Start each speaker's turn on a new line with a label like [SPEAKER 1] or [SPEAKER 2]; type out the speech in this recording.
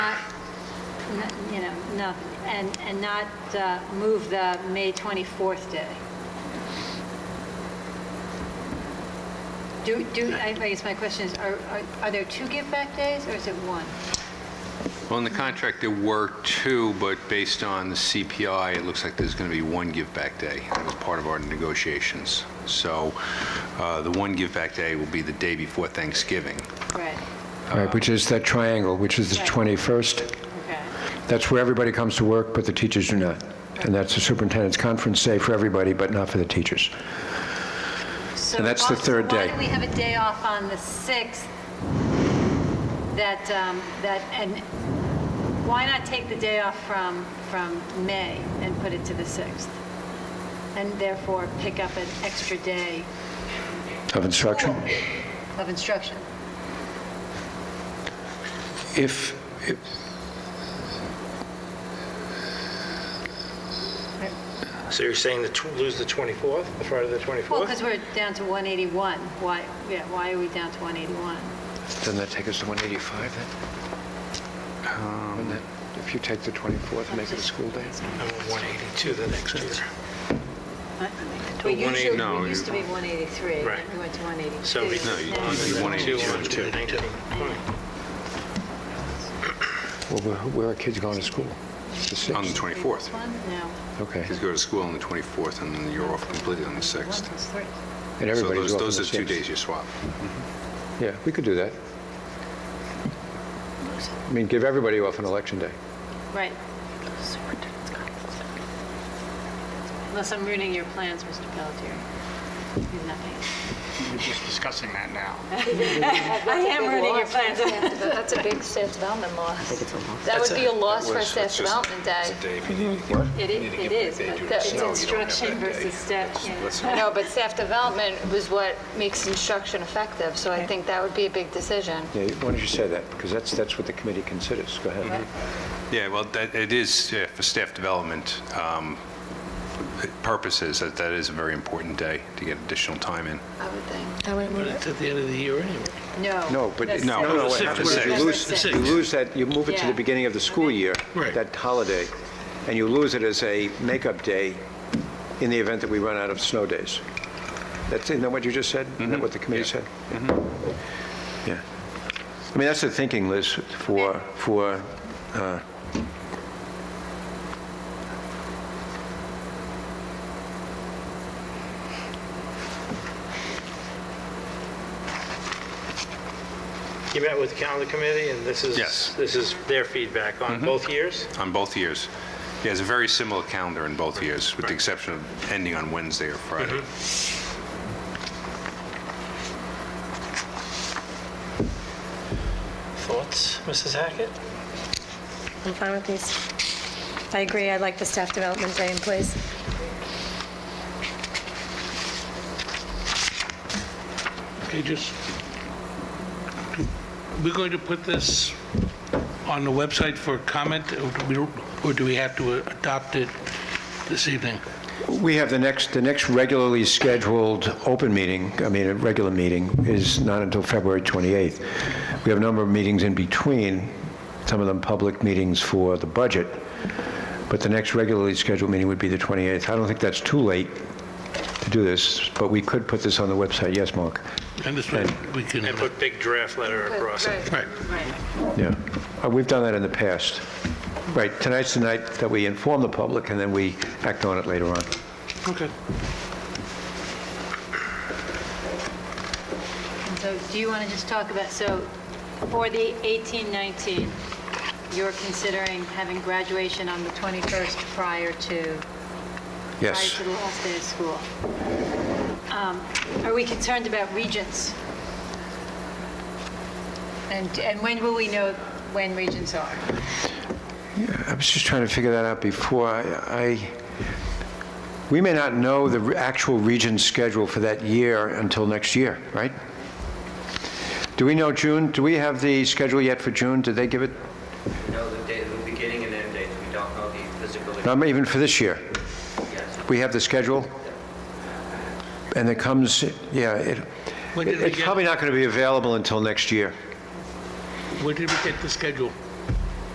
[SPEAKER 1] n- you know, no, and, and not uh, move the May 24th day. Do, do, I I guess my question is, are, are- are there two give-back days, or is it one?
[SPEAKER 2] Well, in the contract, there were two, but based on the CPI, it looks like there's going to be one give-back day. That was part of our negotiations. So uh, the one give-back day will be the day before Thanksgiving.
[SPEAKER 1] Right,
[SPEAKER 3] Right, which is that triangle, which is the
[SPEAKER 1] Right.
[SPEAKER 3] 21st.
[SPEAKER 1] okay,
[SPEAKER 3] That's where everybody comes to work, but the teachers do not. And that's the superintendent's conference day for everybody, but not for the teachers.
[SPEAKER 1] So
[SPEAKER 3] And that's the
[SPEAKER 1] why- so
[SPEAKER 3] third
[SPEAKER 1] Why
[SPEAKER 3] day.
[SPEAKER 1] do we have a day off on the 6th that, um, that, and why not take the day off from, from May and put it to the 6th? And therefore pick up an extra day
[SPEAKER 3] Of instruction?
[SPEAKER 1] of instruction?
[SPEAKER 3] If, if-
[SPEAKER 4] So you're saying that lose the 24th, the Friday the
[SPEAKER 1] Well,
[SPEAKER 4] 24th?
[SPEAKER 1] because we're down to 181, why, yeah, why are we down to 181?
[SPEAKER 3] doesn't that take us to 185 then? Wouldn't that- If you take the 24th and make it a school day?
[SPEAKER 4] I'm at 182 the next year.
[SPEAKER 1] We
[SPEAKER 4] But 180
[SPEAKER 1] usually,
[SPEAKER 2] no,
[SPEAKER 1] we used to be 183, and
[SPEAKER 4] Right.
[SPEAKER 1] we went to 182.
[SPEAKER 4] So we
[SPEAKER 2] No, you-
[SPEAKER 1] Now-
[SPEAKER 2] you want
[SPEAKER 4] Two,
[SPEAKER 2] 182.
[SPEAKER 4] one, two, 19.
[SPEAKER 3] Well, where- where are kids going to school? The
[SPEAKER 2] On the
[SPEAKER 3] 6th?
[SPEAKER 1] This
[SPEAKER 2] 24th.
[SPEAKER 1] one? No.
[SPEAKER 3] Okay.
[SPEAKER 2] Kids go to school on the 24th, and then you're off completely on the 6th.
[SPEAKER 1] One, two, three.
[SPEAKER 3] And
[SPEAKER 2] So
[SPEAKER 3] everybody's
[SPEAKER 2] those-
[SPEAKER 3] off on
[SPEAKER 2] those
[SPEAKER 3] the
[SPEAKER 2] are two
[SPEAKER 3] 6th.
[SPEAKER 2] days you swap.
[SPEAKER 3] Yeah, we could do that. I mean, give everybody off on election day.
[SPEAKER 1] Right. Unless I'm ruining your plans, Mr. Pelletier. You have nothing.
[SPEAKER 5] We're just discussing that now.
[SPEAKER 1] I am ruining your plans.
[SPEAKER 6] That's a big staff development loss. That would be a loss for staff development day.
[SPEAKER 3] Mm-hmm.
[SPEAKER 1] It is, it is, but it's instruction versus step.
[SPEAKER 6] I know, but staff development was what makes instruction effective, so I think that would be a big decision.
[SPEAKER 3] Yeah, why don't you say that? Because that's, that's what the committee considers. Go ahead.
[SPEAKER 2] Yeah, well, that, it is, yeah, for staff development um, purposes, that, that is a very important day to get additional time in.
[SPEAKER 6] I would think.
[SPEAKER 4] But it's at the end of the year anyway.
[SPEAKER 1] No.
[SPEAKER 3] No, but,
[SPEAKER 1] that's-
[SPEAKER 2] No,
[SPEAKER 3] no, no,
[SPEAKER 2] the
[SPEAKER 3] what
[SPEAKER 2] sixth,
[SPEAKER 3] happens
[SPEAKER 2] what
[SPEAKER 3] is
[SPEAKER 2] is
[SPEAKER 3] you
[SPEAKER 2] it?
[SPEAKER 1] The
[SPEAKER 3] lose,
[SPEAKER 4] sixth.
[SPEAKER 3] you lose that, you move it to
[SPEAKER 1] Yeah.
[SPEAKER 3] the beginning of the school year,
[SPEAKER 4] Right.
[SPEAKER 3] that holiday, and you lose it as a makeup day in the event that we run out of snow days. That's, isn't that what you just said? Isn't that what the committee said? Yeah. I mean, that's the thinking, Liz, for, for, uh,
[SPEAKER 4] You met with the calendar committee, and this is,
[SPEAKER 2] Yes.
[SPEAKER 4] this is their feedback on both years?
[SPEAKER 2] On both years. Yeah, it's a very similar calendar in both years, with the exception of ending on Wednesday or Friday.
[SPEAKER 4] Thoughts, Mrs. Hackett?
[SPEAKER 7] I'm fine with these. I agree, I'd like the staff development day in place.
[SPEAKER 8] Okay, just, we're going to put this on the website for comment, or do we- or do we have to uh, adopt it this evening?
[SPEAKER 3] We have the next, the next regularly scheduled open meeting, I mean, a regular meeting, is not until February 28th. We have a number of meetings in between, some of them public meetings for the budget, but the next regularly scheduled meeting would be the 28th. I don't think that's too late to do this, but we could put this on the website, yes, Mark?
[SPEAKER 8] And this way, we can,
[SPEAKER 4] And put big draft letter across it.
[SPEAKER 8] right,
[SPEAKER 3] Yeah. Uh, We've done that in the past. Right, tonight's the night that we inform the public, and then we act on it later on.
[SPEAKER 8] okay.
[SPEAKER 1] And So do you want to just talk about, so for the 1819, you're considering having graduation on the 21st prior to prior
[SPEAKER 3] Yes.
[SPEAKER 1] to the last day of school. Um, Are we concerned about regents? And, and when will we know when regents are?
[SPEAKER 3] I was just trying to figure that out before. I, I- we may not know the re- actual region schedule for that year until next year, right? Do we know June? Do we have the schedule yet for June? Did they give it?
[SPEAKER 9] know the date, the beginning and end dates, we don't know the physical address
[SPEAKER 3] Not even for this year.
[SPEAKER 9] yet.
[SPEAKER 3] We have the schedule? And it comes, yeah, it,
[SPEAKER 8] When did we
[SPEAKER 3] it's
[SPEAKER 8] get-
[SPEAKER 3] probably not going to be available until next year.
[SPEAKER 8] Where did we get the schedule?